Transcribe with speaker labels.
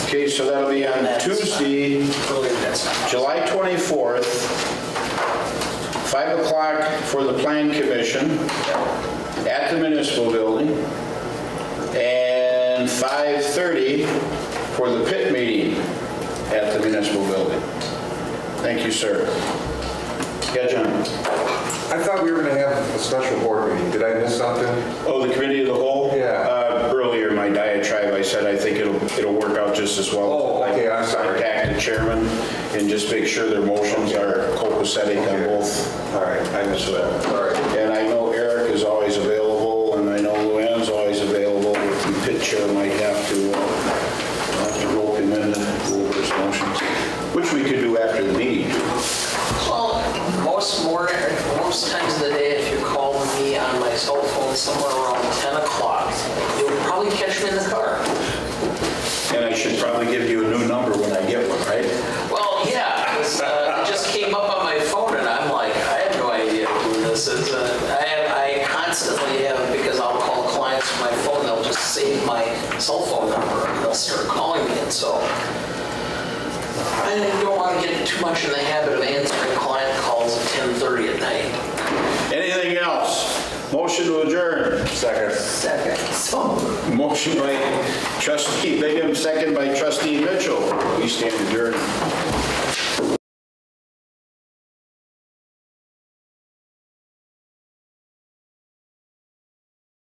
Speaker 1: Okay, so that'll be on
Speaker 2: That's fine.
Speaker 1: Tuesday,
Speaker 2: Earlier that's fine.
Speaker 1: July 24th, 5 o'clock for the Plan Commission at the Municipal Building, and 5:30 for the pit meeting at the Municipal Building. Thank you, sir. Yeah, John?
Speaker 3: I thought we were going to have a special board meeting. Did I miss something?
Speaker 1: Oh, the Committee of the Whole?
Speaker 3: Yeah.
Speaker 1: Uh, Earlier, my diatribe, I said I think it'll, it'll work out just as well.
Speaker 3: Oh, okay, I'm sorry.
Speaker 1: Contact the chairman and just make sure their motions are copacetic on
Speaker 3: Okay.
Speaker 1: both.
Speaker 3: All right, I missed that. All right.
Speaker 1: And I know Eric is always available, and I know Luann's always available. The pit chair might have to, uh, have to rope him in and go over his motions, which we could do after the meeting.
Speaker 2: Well, most morning, most times of the day, if you call me on my cell phone somewhere around 10 o'clock, you'll probably catch me in the car.
Speaker 1: And I should probably give you a new number when I get one, right?
Speaker 2: Well, yeah, it was, uh, it just came up on my phone and I'm like, I have no idea who this is. And I have, I constantly have, because I'll call clients from my phone, they'll just save my cell phone number and they'll start calling me. And so I don't want to get too much in the habit of answering client calls at 10:30 at night.
Speaker 1: Anything else? Motion to adjourn.
Speaker 3: Second.
Speaker 2: Second. So.
Speaker 1: Motion by trustee Bingham, second by trustee Mitchell. We stand adjourned.